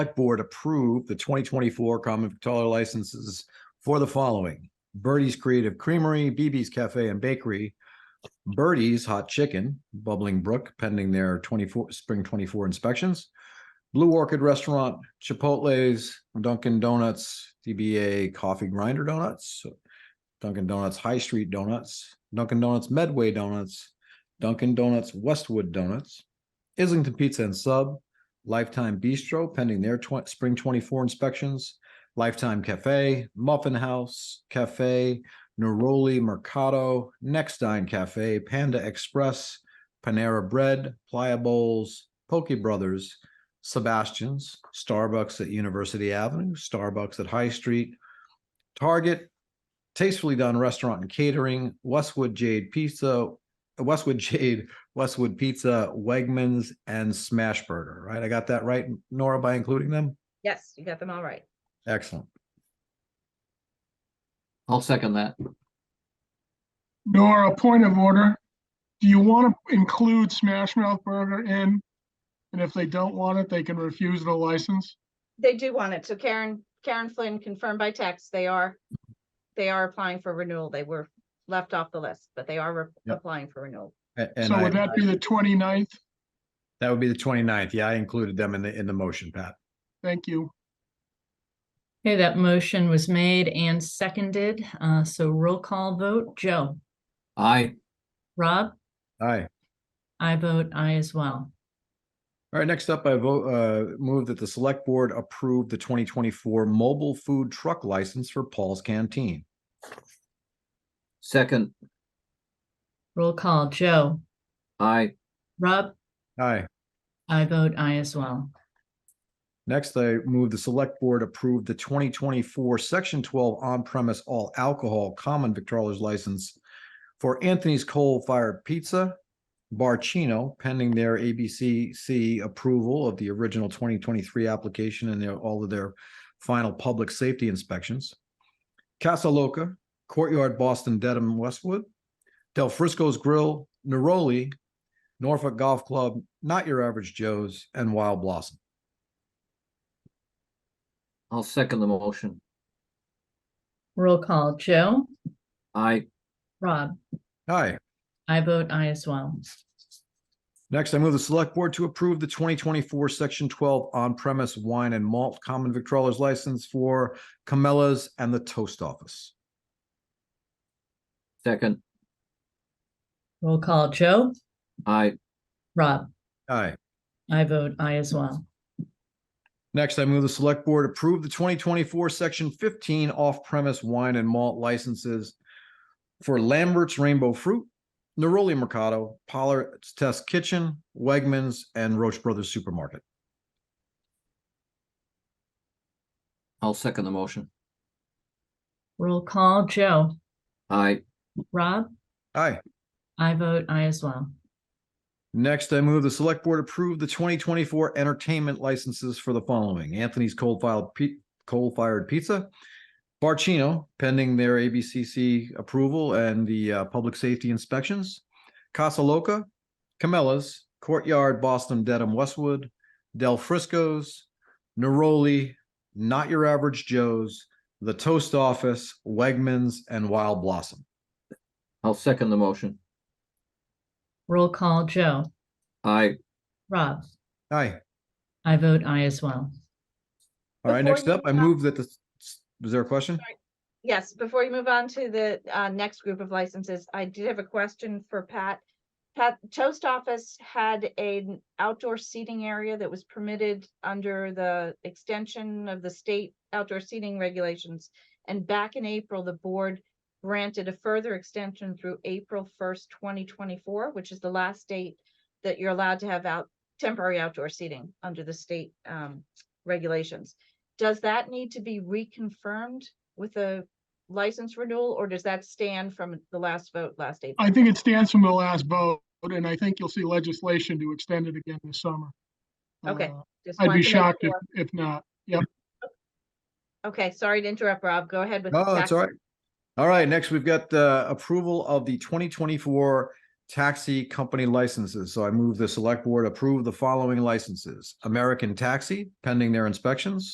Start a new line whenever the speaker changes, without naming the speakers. Select Board approve the twenty twenty-four common victualler licenses for the following. Birdie's Creative Creamery, BB's Cafe and Bakery, Birdie's Hot Chicken, Bubbling Brook pending their twenty-four, spring twenty-four inspections, Blue Orchid Restaurant, Chipotle's, Dunkin' Donuts, DBA Coffee Grinder Donuts, Dunkin' Donuts High Street Donuts, Dunkin' Donuts Medway Donuts, Dunkin' Donuts Westwood Donuts, Islington Pizza and Sub, Lifetime Bistro pending their twen- spring twenty-four inspections, Lifetime Cafe, Muffin House Cafe, Neroli Mercado, Next Dine Cafe, Panda Express, Panera Bread, Playa Bowls, Poke Brothers, Sebastian's, Starbucks at University Avenue, Starbucks at High Street, Target, Tastefully Done Restaurant and Catering, Westwood Jade Pizza, Westwood Jade, Westwood Pizza, Wegmans, and Smashburger, right? I got that right, Nora, by including them?
Yes, you got them all right.
Excellent.
I'll second that.
Nora, point of order. Do you want to include Smash Mouth Burger in? And if they don't want it, they can refuse the license?
They do want it. So Karen, Karen Flynn confirmed by text, they are, they are applying for renewal. They were left off the list, but they are re-
Yep.
applying for renewal.
A- And
So would
I,
that be the 29th?
that would be the 29th. Yeah, I included them in the, in the motion, Pat.
Thank you.
Okay, that motion was made and seconded, uh, so roll call vote, Joe,
Aye.
Rob,
Aye.
I vote aye as well.
All right, next up, I vote, uh, move that the select board approve the twenty twenty-four mobile food truck license for Paul's Canteen.
Second.
Roll call, Joe,
Aye.
Rob,
Aye.
I vote aye as well.
Next, I move the select board approve the twenty twenty-four section twelve on-premise all alcohol common victrolas license for Anthony's Coal Fired Pizza, Barcino, pending their ABCC approval of the original twenty twenty-three application and their, all of their final public safety inspections. Casa Loca, Courtyard Boston Dedham Westwood, Del Frisco's Grill, Neroli, Norfolk Golf Club, Not Your Average Joe's, and Wild Blossom.
I'll second the motion.
Roll call, Joe,
Aye.
Rob,
Hi.
I vote aye as well.
Next, I move the select board to approve the twenty twenty-four section twelve on-premise wine and malt common victrolas license for Camellas and the Toast Office.
Second.
Roll call, Joe,
Aye.
Rob,
Aye.
I vote aye as well.
Next, I move the select board approve the twenty twenty-four section fifteen off-premise wine and malt licenses for Lambert's Rainbow Fruit, Neroli Mercado, Pollard's Test Kitchen, Wegmans, and Roche Brothers Supermarket.
I'll second the motion.
Roll call, Joe,
Aye.
Rob,
Aye.
I vote aye as well.
Next, I move the select board approve the twenty twenty-four entertainment licenses for the following. Anthony's Cold File, Pi- Coal Fired Pizza. Barcino pending their ABCC approval and the uh, public safety inspections. Casa Loca, Camellas, Courtyard, Boston, Dedham, Westwood, Del Frisco's, Neroli, Not Your Average Joe's, The Toast Office, Wegmans, and Wild Blossom.
I'll second the motion.
Roll call, Joe,
Aye.
Rob,
Aye.
I vote aye as well.
All right,
Before
next
you
up, I
stop-
move that the, was there a question?
Yes, before you move on to the uh, next group of licenses, I did have a question for Pat. Pat, Toast Office had an outdoor seating area that was permitted under the extension of the state outdoor seating regulations. And back in April, the board granted a further extension through April first, twenty twenty-four, which is the last date that you're allowed to have out temporary outdoor seating under the state um, regulations. Does that need to be reconfirmed with a license renewal, or does that stand from the last vote last April?
I think it stands from the last vote, and I think you'll see legislation to extend it again this summer.
Okay,
Uh,
Just
I'd
wanted
be
to make
shocked if,
sure.
if not. Yep,
Okay, sorry to interrupt, Rob. Go ahead with.
No, that's all right. All right, next we've got the approval of the twenty twenty-four taxi company licenses. So I move the select board approve the following licenses. American Taxi pending their inspections.